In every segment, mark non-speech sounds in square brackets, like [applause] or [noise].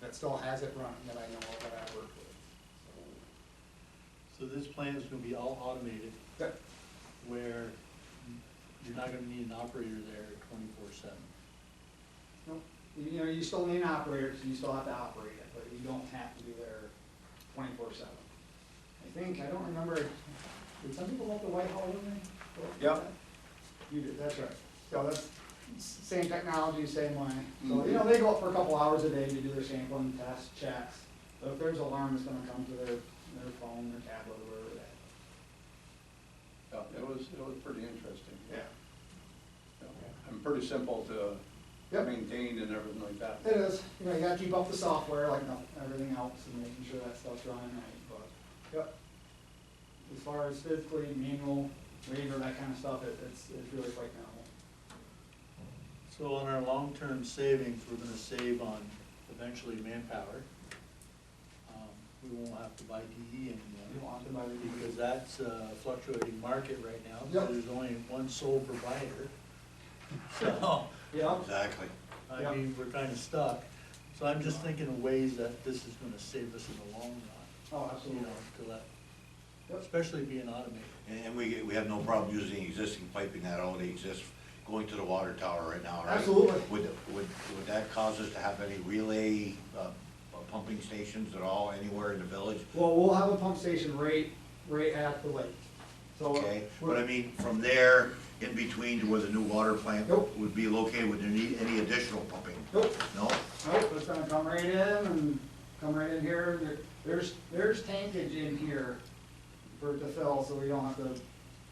that still has it running that I know of that I work with. So this plan is gonna be all automated, So, That, where you're not gonna need an operator there twenty-four seven. no, you know, you still need an operator, so you still have to operate it, but you don't have to be there twenty-four seven. I think, I don't remember, did some people let the Whitehall in there? Yep. You did, that's right. So that's s- same technology, same way. So, you know, they go up for a couple hours a day to do their sampling, tests, checks. So if there's an alarm, it's gonna come to their, their phone, their tablet, or whatever that. Yeah, it was, it was pretty interesting. Yeah. Yeah. And pretty simple to Yep. maintain and everything like that. It is, you know, you gotta keep up the software like noth- everything else and making sure that stuff's running right, but, yep. As far as physically manual, waiver, that kind of stuff, it, it's, it's really quite minimal. So on our long-term savings, we're gonna save on eventually manpower. Um, We won't have to buy DE You don't anymore, have to buy the because that's a fluctuating market right now, Yep. because there's only one sole [laughs] provider. So, Yep, Exactly. I Yep. mean, we're kinda stuck. So I'm just thinking of ways that this is gonna save us in the long run, oh, you absolutely. know, to let, Yep, especially being automated. And, and we, we have no problem using existing piping that already exists, going to the water tower right now, right? Absolutely. Would, would, would that cause us to have any relay, uh, uh, pumping stations at all, anywhere in the village? well, we'll have a pump station right, right at the lake, so. uh, Okay, we're- but I mean, from there, in between to where the new water plant Nope. would be located, would there need any additional pumping? Nope, No? Nope, it's gonna come right in and come right in here, There- there's, there's tankage in here for it to fill, so we don't have to,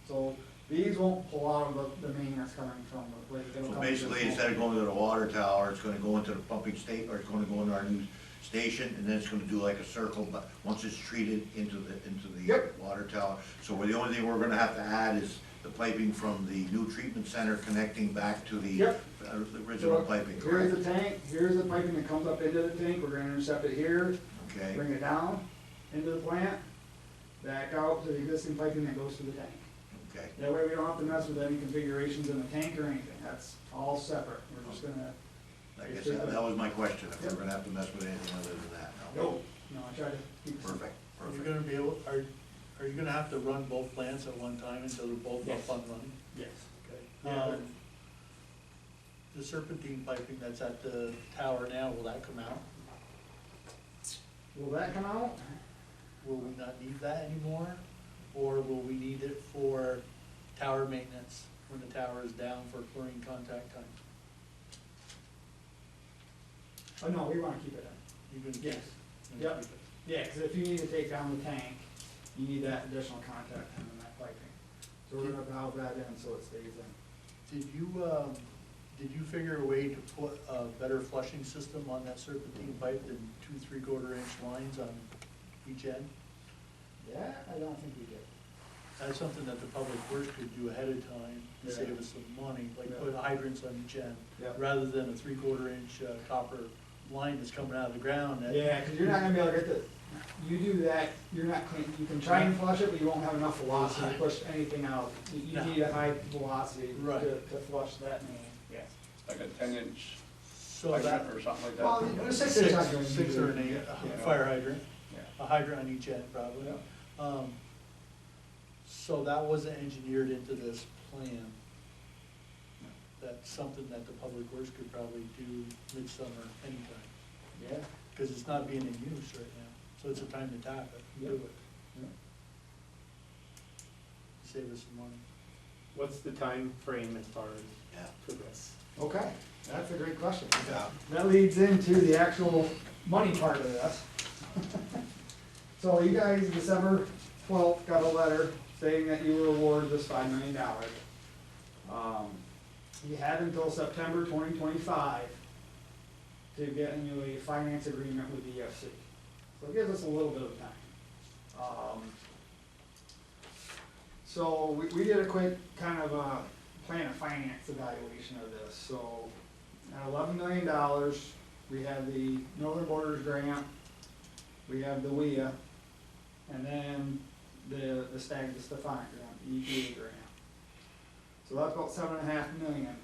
so these won't pull out of the, the main that's coming from the lake. It'll come into So the basically, small- instead of going to the water tower, it's gonna go into the pumping state, or it's gonna go into our new station, and then it's gonna do like a circle, but once it's treated into the, into the Yep. water tower. So we're- the only thing we're gonna have to add is the piping from the new treatment center connecting back to the Yep. uh, the original So, piping, Here's the correct? tank, here's the piping that comes up into the tank, we're gonna intercept it here, Okay, bring it down into the plant, back out to the existing piping that goes to the tank. okay. That way we don't have to mess with any configurations in the tank or anything, that's all separate, we're just gonna I guess that that was my question, if we're Yep. gonna have to mess with anything other than that, no? Nope. No, I try to keep. it simple. Perfect, Are you perfect. gonna be able, are, are you gonna have to run both plants at one time until they're both Yes. up and running? Yes. Okay. Yeah. Um, The serpentine piping that's at the tower now, will that come out? Will that come out? Will we not need that anymore? Or will we need it for tower maintenance when the tower is down for chlorine contact time? Oh, no, we wanna keep it in. You can Yes. Yep. Yeah, cause if you need to take down the tank, you need that additional contact time and that piping. So we're gonna valve that in so it stays in. Did you, um, did you figure a way to put a better flushing system on that serpentine pipe than two three-quarter inch lines on each end? Yeah, I don't think we did. That's something that the public works could do ahead of time to Yeah. save us some money, like Yeah. put hydrants on each end, Yeah. rather than a three-quarter inch uh, copper line that's coming out of the ground. that- Yeah, cause you're not gonna be able to get the, you do that, you're not clean, you can try and flush it, but you won't have enough velocity to push anything out. You, you No. need a high velocity to, Right. to flush that main. Yes. Like a ten inch So that, hydrant or something like Well, that. a six inch six, hydrant. six or an eight, Yeah. a fire hydrant, Yeah. a hydrant on each end probably. Yeah. Um, So that wasn't engineered into this plan. That's something that the public works could probably do midsummer anytime, Yeah. because it's not being in use right now, so it's a time to tap it, and do Yeah. it. save us some money. What's the time frame as far as Yeah, for this? Okay, that's a great question. yeah. That leads into the actual money part of this. [laughs] So you guys, December twelfth, got a letter saying that you were awarded this five million dollars. Um, you had until September twenty twenty-five to get into a finance agreement with the EFC. So it gives us a little bit of time. Um, so we, we did a quick kind of a plan of finance evaluation of this, so at eleven million dollars, we have the Northern Borders Grant, we have the WIA, and then E the, the Stag to Stefan grant, the EPA grant. So that's about seven and a half million.